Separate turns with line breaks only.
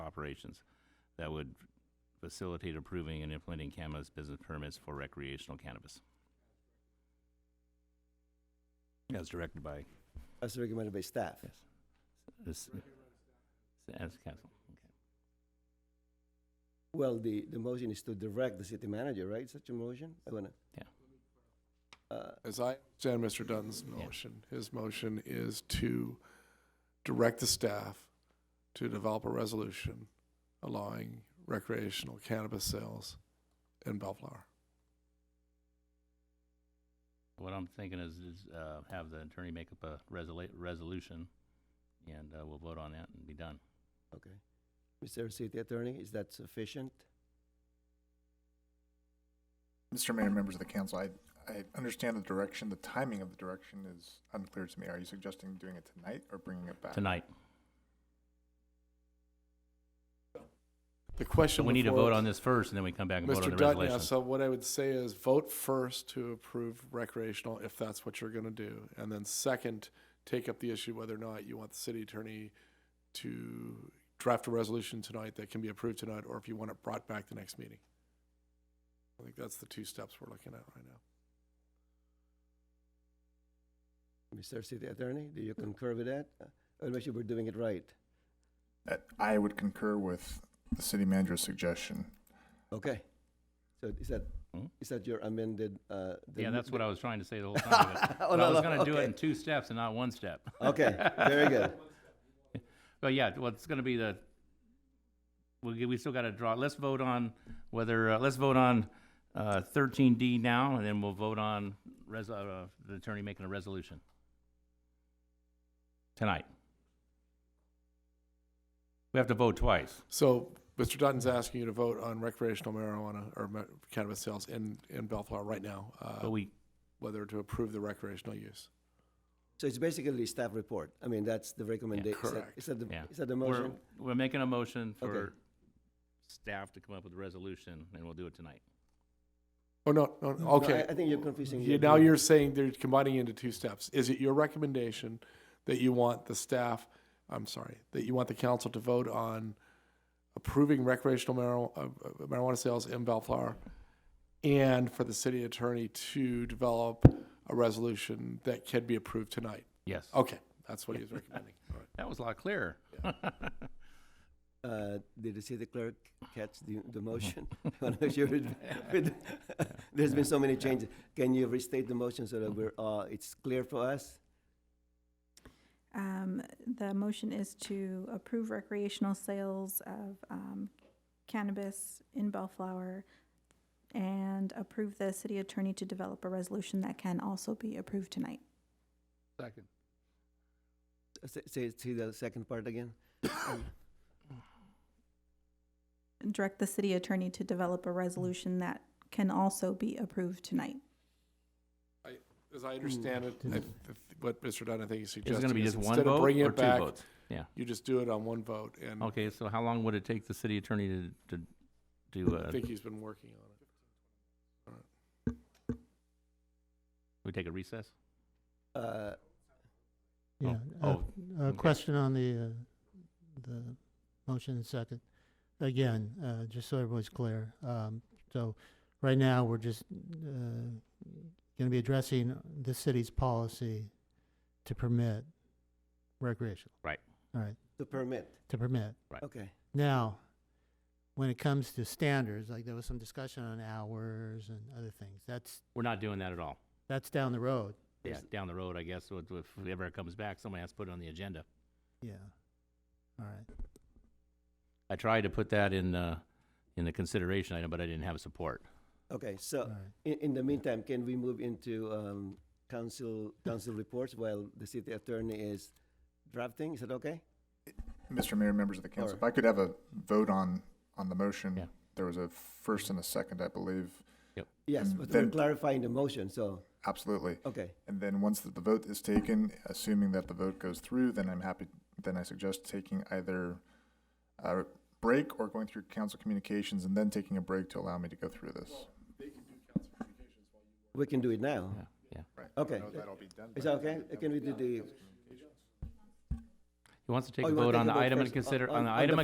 operations that would facilitate approving and implementing cannabis business permits for recreational cannabis. As directed by
As recommended by staff.
Yes. this, as council.
Well, the, the motion is to direct the city manager, right? Such a motion? I wanna.
Yeah.
Uh,
As I understand Mr. Dunn's
Yeah.
motion, his motion is to direct the staff to develop a resolution allowing recreational cannabis sales in Bellflower.
What I'm thinking is, is, uh, have the attorney make up a resolu- resolution, and, uh, we'll vote on that and be done.
okay. Mr. City Attorney, is that sufficient?
Mr. Mayor, members of the council, I, I understand the direction, the timing of the direction is unclear to me. Are you suggesting doing it tonight or bringing it back?
Tonight,
The question
we need to
before-
vote on this first, and then we come back and vote on
Mr.
the
Dutton, yeah,
resolution.
so what I would say is vote first to approve recreational, if that's what you're gonna do. And then second, take up the issue whether or not you want the city attorney to draft a resolution tonight that can be approved tonight, or if you want it brought back the next meeting. I think that's the two steps we're looking at right now.
Mr. City Attorney, do you concur with that? Uh, I'll make sure we're doing it right.
Uh, I would concur with the city manager's suggestion.
Okay. So is that,
Hmm?
is that your amended, uh? the-
Yeah, that's what I was trying to say the whole time, but-
Oh,
but I
no,
was
no,
gonna do it
okay.
in two steps and not one step.
Okay, very good.
But yeah, well, it's gonna be the, we, g- we still gotta draw, let's vote on whether, uh, let's vote on, uh, thirteen D now, and then we'll vote on res, uh, the attorney making a resolution. Tonight. We have to vote twice.
So Mr. Dutton's asking you to vote on recreational marijuana or ma- cannabis sales in, in Bellflower right now,
But
uh,
we,
whether to approve the recreational use.
So it's basically staff report. I mean, that's the recommendation.
correct.
Is that the,
Yeah.
is that the
we're,
motion?
we're making a motion
Okay.
for staff to come up with a resolution, and we'll do it tonight.
Oh, no, no,
No,
okay.
I- I think you're confusing.
Yeah,
your-
now you're saying they're combining into two steps. Is it your recommendation that you want the staff, I'm sorry, that you want the council to vote on approving recreational marijuana, uh, marijuana sales in Bellflower and for the city attorney to develop a resolution that can be approved tonight?
Yes.
Okay, that's what he's recommending. All right.
That was a lot clearer.
Uh, Did the city clerk catch the, the motion? I want to make sure, it- it- there's been so many changes. Can you restate the motion so that we're, uh, it's clear for us?
Um, the motion is to approve recreational sales of, um, cannabis in Bellflower and approve the city attorney to develop a resolution that can also be approved tonight.
Second.
Say- Say, say the second part again?
Direct the city attorney to develop a resolution that can also be approved tonight.
As I understand it, I th- what Mr. Dunn, I think he's
It's
suggesting
Hmm. gonna be
is
just one
instead of
vote
bringing
or
it
two
back,
votes? Yeah.
you just do it on one vote. And I
Okay, so how long would it take the city attorney to, to do, uh,
think he's been working on it.
we take a recess?
Uh,
Oh,
Yeah,
oh,
a,
okay.
question on the, uh, the motion and second. Again, uh, just so everyone's clear, um, so right now, we're just, uh, gonna be addressing the city's policy to permit recreational.
Right.
All right,
The permit,
to permit.
okay.
Now, when it comes to standards, like there was some discussion on hours and other things, that's,
We're not doing that at all.
that's down the road,
Yeah,
Is-
down the road, I guess, so if if ever it comes back, someone has to put it on the agenda.
yeah. All right.
I tried to put that in, uh, in the consideration item, but I didn't have support.
Okay,
All
so
right.
in, in the meantime, can we move into um, council, council reports while the city attorney is drafting? Is that okay?
Mr. Mayor, members of the council, if I could have a vote on, on the motion.
Yeah.
There was a first and a second, I believe.
Yes,
And
but we're
then-
clarifying the motion, so,
Absolutely.
okay.
And then once the vote is taken, assuming that the vote goes through, then I'm happy, then I suggest taking either a break or going through council communications and then taking a break to allow me to go through this.
We can do it now.
Yeah, yeah.
Okay.
That'll be done.
Is that okay? Can we do the,
He wants to take
Oh,
a
you wanna
vote
take
on
a
the
vote
item and
first on-
consider,
on-
on the
on the
item